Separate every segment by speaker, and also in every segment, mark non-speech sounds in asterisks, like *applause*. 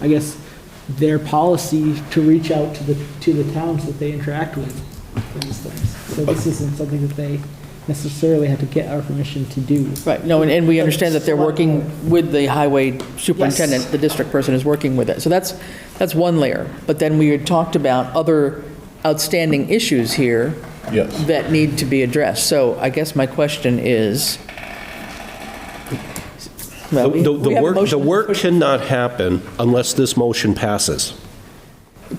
Speaker 1: I guess, their policy to reach out to the, to the towns that they interact with for these things. So this isn't something that they necessarily have to get our permission to do.
Speaker 2: Right, no, and- and we understand that they're working with the highway
Speaker 1: Yes.
Speaker 2: superintendent, the district person is working with it. So that's, that's one layer. But then we had talked about other outstanding issues here
Speaker 3: Yes.
Speaker 2: that need to be addressed. So I guess my question is, well, we
Speaker 3: The- The
Speaker 2: we
Speaker 3: the
Speaker 2: have a
Speaker 3: work, the
Speaker 2: motion.
Speaker 3: work cannot happen unless this motion passes.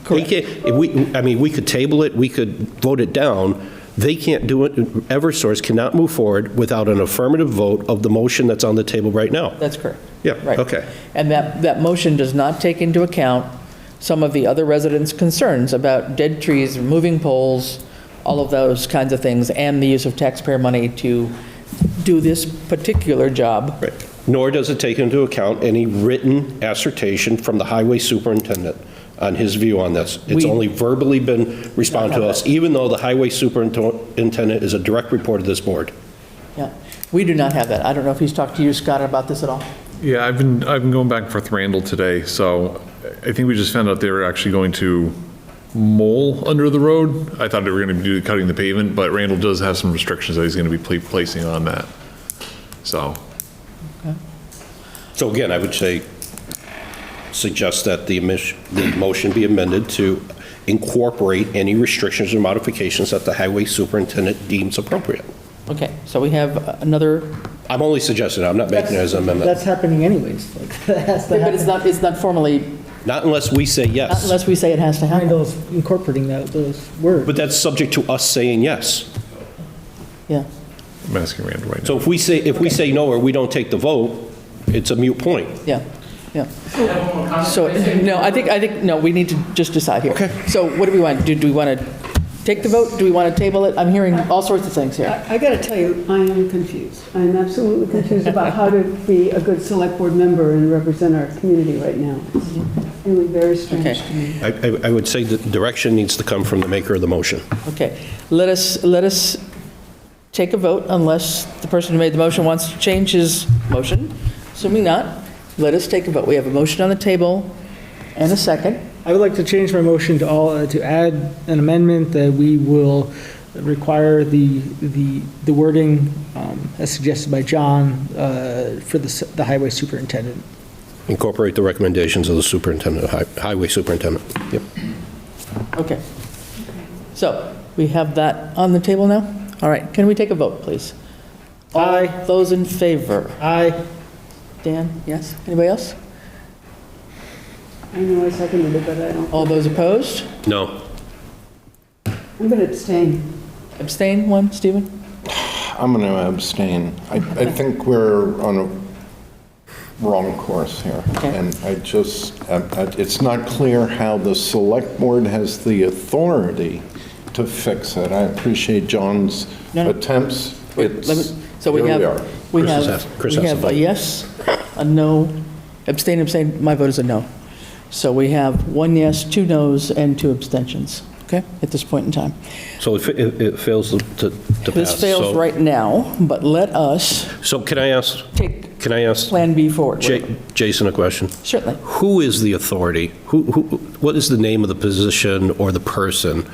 Speaker 3: They can't, if we, I mean, we could table it, we could vote it down. They can't do it, Eversource cannot move forward without an affirmative vote of the motion that's on the table right now.
Speaker 2: That's correct.
Speaker 3: Yeah,
Speaker 2: Right.
Speaker 3: okay.
Speaker 2: And that, that motion does not take into account some of the other residents' concerns about dead trees, moving poles, all of those kinds of things, and the use of taxpayer money to do this particular job.
Speaker 3: Right. Nor does it take into account any written assertion from the highway superintendent on his view on this. It's
Speaker 2: We-
Speaker 3: only verbally been responded to us, even though the highway superintendent is a direct report of this board.
Speaker 2: Yeah, we do not have that. I don't know if he's talked to you, Scott, about this at all?
Speaker 4: Yeah, I've been, I've been going back and forth with Randall today, so I think we just found out they were actually going to mole under the road. I thought they were going to be cutting the pavement, but Randall does have some restrictions that he's going to be pla- placing on that. So,
Speaker 3: So again, I would say, suggest that the emish- the motion be amended to incorporate any restrictions or modifications that the highway superintendent deems appropriate.
Speaker 2: Okay, so we have another,
Speaker 3: I'm only suggesting, I'm not making it as an amendment.
Speaker 1: That's happening anyways, *laughs* like, that has to
Speaker 2: but it's
Speaker 1: happen.
Speaker 2: not, it's not formally,
Speaker 3: Not unless we say
Speaker 2: not
Speaker 3: yes,
Speaker 2: unless we say it has to happen.
Speaker 1: Randall's incorporating that, those words.
Speaker 3: but that's subject to us saying yes.
Speaker 2: Yeah,
Speaker 4: I'm asking Randall right now.
Speaker 3: So if we say, if we say no or we don't take the vote, it's a mute point.
Speaker 2: yeah, yeah. So, no, I think, I think, no, we need to just decide here. Okay. So what do we want? Do, do we want to take the vote? Do we want to table it? I'm hearing all sorts of things here.
Speaker 5: I got to tell you, I am confused. I am absolutely confused about how to be a good select board member and represent our community right now. It's really very strange
Speaker 2: Okay.
Speaker 5: to me.
Speaker 3: I, I- I would say that direction needs to come from the maker of the motion.
Speaker 2: Okay, let us, let us take a vote unless the person who made the motion wants to change his motion. Assuming not, let us take a vote. We have a motion on the table and a second.
Speaker 1: I would like to change my motion to all, uh, to add an amendment that we will require the, the the wording um, as suggested by John uh, for the s- the highway superintendent.
Speaker 3: Incorporate the recommendations of the superintendent, hi- highway superintendent. Yep.
Speaker 2: Okay. So we have that on the table now? All right, can we take a vote, please?
Speaker 1: Aye.
Speaker 2: All Those in favor?
Speaker 1: Aye.
Speaker 2: Dan, yes? Anybody else?
Speaker 5: I know I seconded it, but I don't.
Speaker 2: All those opposed?
Speaker 3: No.
Speaker 5: I'm going to abstain.
Speaker 2: Abstain, one, Stephen?
Speaker 6: I'm going to abstain. I, I think we're on a wrong course here.
Speaker 2: Okay.
Speaker 6: And I just, um, I- I- it's not clear how the select board has the authority to fix it. I appreciate John's
Speaker 2: No, no.
Speaker 6: attempts.
Speaker 2: Wait, let me-
Speaker 6: It's,
Speaker 2: So we
Speaker 6: here
Speaker 2: have,
Speaker 6: we are.
Speaker 2: we
Speaker 3: Chris has
Speaker 2: have,
Speaker 3: asked- Chris
Speaker 2: we
Speaker 3: has a
Speaker 2: have a
Speaker 3: vote.
Speaker 2: yes, a no, abstain, abstain, my vote is a no. So we have one yes, two nos, and two abstentions, okay, at this point in time.
Speaker 3: So it fa- it it fails to to pass.
Speaker 2: This fails
Speaker 3: So-
Speaker 2: right now, but let us
Speaker 3: So can I ask,
Speaker 2: take
Speaker 3: can I ask
Speaker 2: Plan B forward.
Speaker 3: Ja- Jason a question?
Speaker 2: Certainly.
Speaker 3: Who is the authority? Who, who, what is the name of the position or the person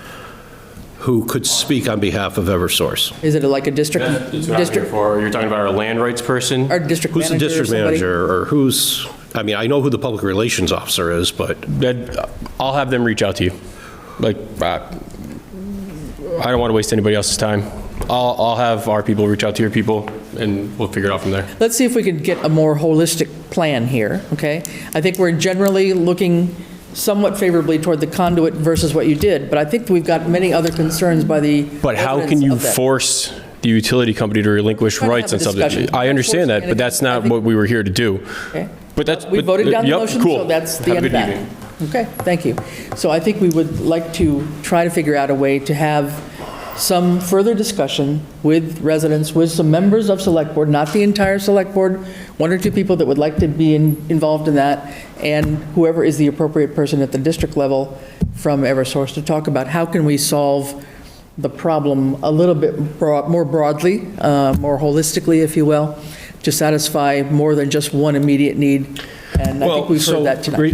Speaker 3: who could speak on behalf of Eversource?
Speaker 2: Is it like a district?
Speaker 7: That's what I'm here
Speaker 2: district-
Speaker 7: for. You're talking about our land rights person?
Speaker 2: Our district
Speaker 3: Who's the
Speaker 2: manager or
Speaker 3: district
Speaker 2: somebody?
Speaker 3: manager, or who's, I mean, I know who the public relations officer is, but
Speaker 7: That- I'll have them reach out to you. Like, uh, I don't want to waste anybody else's time. I'll, I'll have our people reach out to your people, and we'll figure it out from there.
Speaker 2: Let's see if we can get a more holistic plan here, okay? I think we're generally looking somewhat favorably toward the conduit versus what you did, but I think we've got many other concerns by the
Speaker 7: But how can
Speaker 2: residents
Speaker 7: you
Speaker 2: of that.
Speaker 7: force the utility company to relinquish
Speaker 2: We're gonna
Speaker 7: rights
Speaker 2: have
Speaker 7: on
Speaker 2: a
Speaker 7: something?
Speaker 2: discussion.
Speaker 7: I understand that, but that's not what we were here to do.
Speaker 2: Okay.
Speaker 7: But that's.
Speaker 2: We
Speaker 7: but- uh,
Speaker 2: voted down the
Speaker 7: yep,
Speaker 2: motion,
Speaker 7: cool.
Speaker 2: so that's the
Speaker 7: Have
Speaker 2: end
Speaker 7: a
Speaker 2: of
Speaker 7: good
Speaker 2: that.
Speaker 7: evening.
Speaker 2: Okay, thank you. So I think we would like to try to figure out a way to have some further discussion with residents, with some members of Select Board, not the entire Select Board, one or two people that would like to be in- involved in that, and whoever is the appropriate person at the district level from Eversource to talk about how can we solve the problem a little bit broad- more broadly, uh, more holistically, if you will, to satisfy more than just one immediate need. And I think
Speaker 3: Well,
Speaker 2: we've
Speaker 3: so
Speaker 2: heard that tonight.
Speaker 3: re-